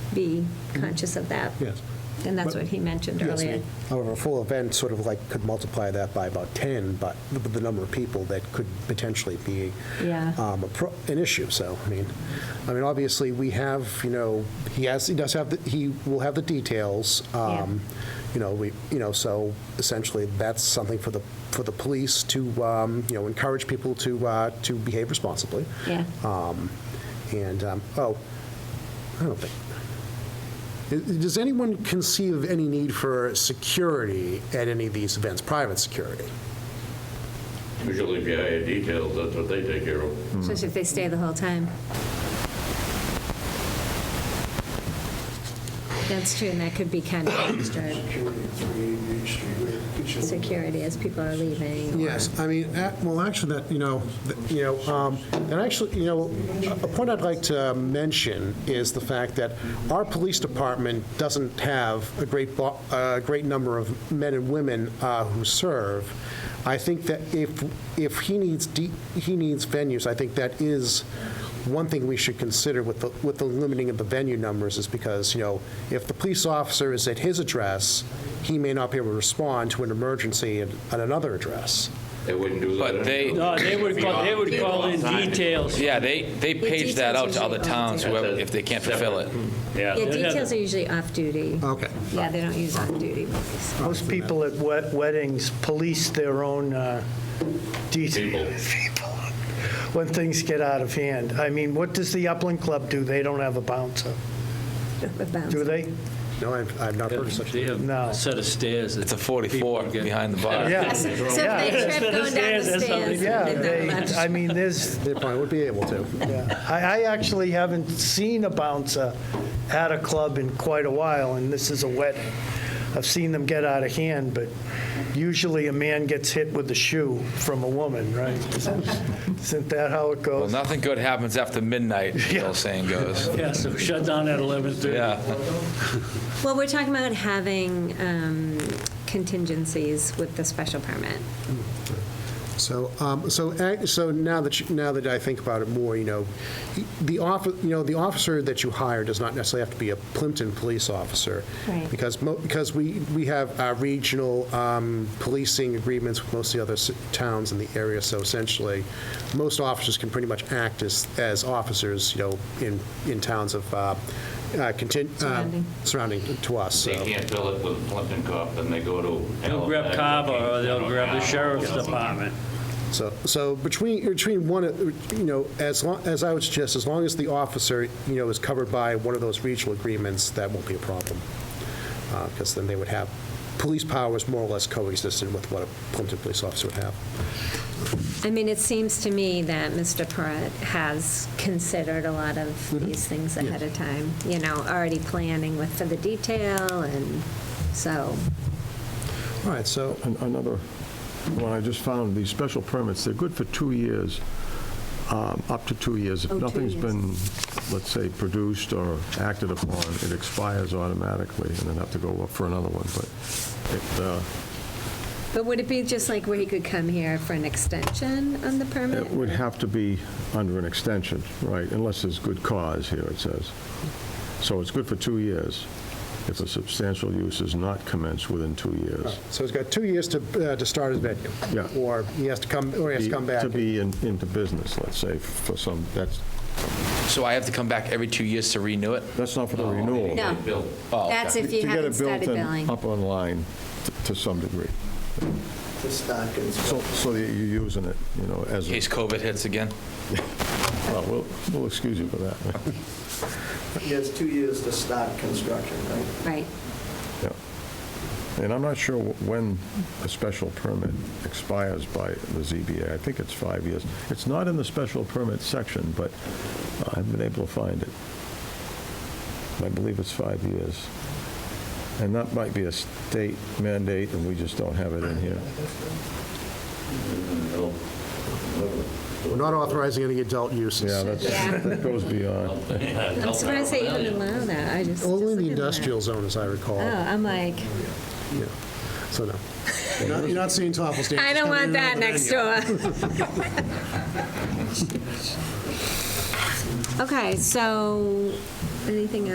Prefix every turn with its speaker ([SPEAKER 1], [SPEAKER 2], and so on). [SPEAKER 1] be
[SPEAKER 2] Mm-hmm.
[SPEAKER 1] conscious of that.
[SPEAKER 3] Yes.
[SPEAKER 1] And that's
[SPEAKER 3] But-
[SPEAKER 1] what he mentioned
[SPEAKER 3] Yes,
[SPEAKER 1] earlier.
[SPEAKER 3] However, a full event sort of like could multiply that by about 10, but the- the number of people that could potentially be
[SPEAKER 1] Yeah.
[SPEAKER 2] Uh,
[SPEAKER 3] um, a pro- an issue, so, I mean, I mean, obviously, we have, you know, he has, he does have, the he will have the details, um, you know, we, you know, so essentially, that's something for the, for the police to, um, you know, encourage people to, uh, to behave responsibly.
[SPEAKER 1] Yeah.
[SPEAKER 3] Um, And, um, oh, I don't think, does anyone conceive of any need for security at any of these events, private security?
[SPEAKER 4] Usually if you hire details, that's what they take care of.
[SPEAKER 1] Especially if they stay the whole time. That's true, and that could be kind of extra
[SPEAKER 5] Security at 388 Street, where it should-
[SPEAKER 1] security as people are leaving. or-
[SPEAKER 3] Yes, I mean, a- well, actually, that, you know, th- you know, um, and actually, you know, a a point I'd like to mention is the fact that our police department doesn't have a great, bo- a great number of men and women uh, who serve. I think that if, if he needs, de- he needs venues, I think that is one thing we should consider with the, with the limiting of the venue numbers is because, you know, if the police officer is at his address, he may not be able to respond to an emergency at, at another address.
[SPEAKER 4] They wouldn't do that.
[SPEAKER 6] But they-
[SPEAKER 4] anyway.
[SPEAKER 7] No, Uh, they would call, they would call in details.
[SPEAKER 6] Yeah, they, they page that out to other towns whoever- if they can't fulfill it.
[SPEAKER 1] Yeah,
[SPEAKER 7] Yeah, they'd have-
[SPEAKER 1] details are usually off-duty.
[SPEAKER 2] Uh,
[SPEAKER 3] Okay.
[SPEAKER 1] Yeah, they don't use off-duty police.
[SPEAKER 2] Most people at wed- weddings police their own uh,
[SPEAKER 4] People.
[SPEAKER 2] detail. People. When things get out of hand. I mean, what does the Upland Club do? They don't have a bouncer, do they?
[SPEAKER 3] No, I've, I've not heard of such.
[SPEAKER 7] They have
[SPEAKER 2] No.
[SPEAKER 7] a set of stairs.
[SPEAKER 6] It's a 44 behind the bar.
[SPEAKER 2] Yeah.
[SPEAKER 1] So if they
[SPEAKER 2] Yeah.
[SPEAKER 1] trip going down the
[SPEAKER 7] Stairs, that's how they
[SPEAKER 1] stairs.
[SPEAKER 2] Yeah,
[SPEAKER 1] they're
[SPEAKER 2] they,
[SPEAKER 1] not allowed to-
[SPEAKER 2] I mean, there's,
[SPEAKER 3] They probably would be able to.
[SPEAKER 2] yeah. I, I actually haven't seen a bouncer at a club in quite a while, and this is a wedding. I've seen them get out of hand, but usually a man gets hit with a shoe from a woman, right? Isn't that how it
[SPEAKER 6] Well,
[SPEAKER 2] goes?
[SPEAKER 6] nothing good happens after midnight, the old saying goes.
[SPEAKER 7] Yeah, so shut down at 11:30.
[SPEAKER 6] Yeah,
[SPEAKER 1] Well, we're talking about having um, contingencies with the special permit.
[SPEAKER 3] So, um, so, ac- so now that, you- now that I think about it more, you know, the off, you know, the officer that you hire does not necessarily have to be a Plimpton police officer.
[SPEAKER 1] Right.
[SPEAKER 3] Because, mo- because we, we have uh, regional um, policing agreements with most of the other s- towns in the area, so essentially, most officers can pretty much act as, as officers, you know, in, in towns of, uh, uh, contin- uh,
[SPEAKER 1] Surrounding.
[SPEAKER 3] surrounding to us, so.
[SPEAKER 4] They can't fill it with Plimpton cop, then they go to.
[SPEAKER 7] They'll grab
[SPEAKER 4] Halifax.
[SPEAKER 7] Carver, or they'll grab the sheriff's department.
[SPEAKER 3] So, so between, between one, you know, as long, as I would suggest, as long as the officer, you know, is covered by one of those regional agreements, that won't be a problem. Because then they would have, police power is more or less coexistent with what a Plimpton police officer would have.
[SPEAKER 1] I mean, it seems to me that Mr. Perret has considered a lot of
[SPEAKER 5] Mm-hmm.
[SPEAKER 1] these things ahead of time, you know, already planning with, for the detail, and so,
[SPEAKER 3] All right, so,
[SPEAKER 5] An- Another one I just found, these special permits, they're good for two years, um, up to two years. If
[SPEAKER 1] Oh, two
[SPEAKER 5] nothing's
[SPEAKER 1] years.
[SPEAKER 5] been, let's say, produced or acted upon, it expires automatically, and then have to go up for another one, but it, uh,
[SPEAKER 1] but would it be just like where he could come here for an extension on the permit?
[SPEAKER 5] It would have to be under an extension, right, unless there's good cause here, it says. So it's good for two years, if a substantial use is not commenced within two years.
[SPEAKER 3] so he's got two years to, uh, to start his venue.
[SPEAKER 5] Yeah.
[SPEAKER 3] Or he has to come, or he has to come back.
[SPEAKER 5] To be in- into business, let's say, for some, that's,
[SPEAKER 6] so I have to come back every two years to renew it? Oh,
[SPEAKER 5] that's not for the renewal.
[SPEAKER 1] No.
[SPEAKER 4] They bill.
[SPEAKER 1] That's if you
[SPEAKER 5] To get it
[SPEAKER 1] haven't started
[SPEAKER 5] built in-
[SPEAKER 1] billing.
[SPEAKER 5] Up online t- to some degree. So, so that you're using it, you know, as,
[SPEAKER 6] In
[SPEAKER 5] a
[SPEAKER 6] case COVID hits again?
[SPEAKER 5] well, we'll, we'll excuse you for that.
[SPEAKER 8] He has two years to start construction, right?
[SPEAKER 1] Right.
[SPEAKER 5] Yeah. And I'm not sure wh- when a special permit expires by the ZBA. I think it's five years. It's not in the special permit section, but I haven't been able to find it. I believe it's five years. And that might be a state mandate, and we just don't have it in here.
[SPEAKER 3] We're not authorizing any adult uses.
[SPEAKER 5] Yeah, that's,
[SPEAKER 1] Yeah.
[SPEAKER 5] that goes beyond.
[SPEAKER 1] I'm surprised they even allow that, I just.
[SPEAKER 3] Only in the
[SPEAKER 1] just look at that.
[SPEAKER 3] industrial zone, as I recall.
[SPEAKER 1] Oh, I'm like,
[SPEAKER 3] Yeah. So no. You're not- You're not seeing Topple standards.
[SPEAKER 1] I don't
[SPEAKER 3] coming
[SPEAKER 1] want
[SPEAKER 3] in on
[SPEAKER 1] that
[SPEAKER 3] the
[SPEAKER 1] next
[SPEAKER 3] venue.
[SPEAKER 1] door. Okay, so, anything else?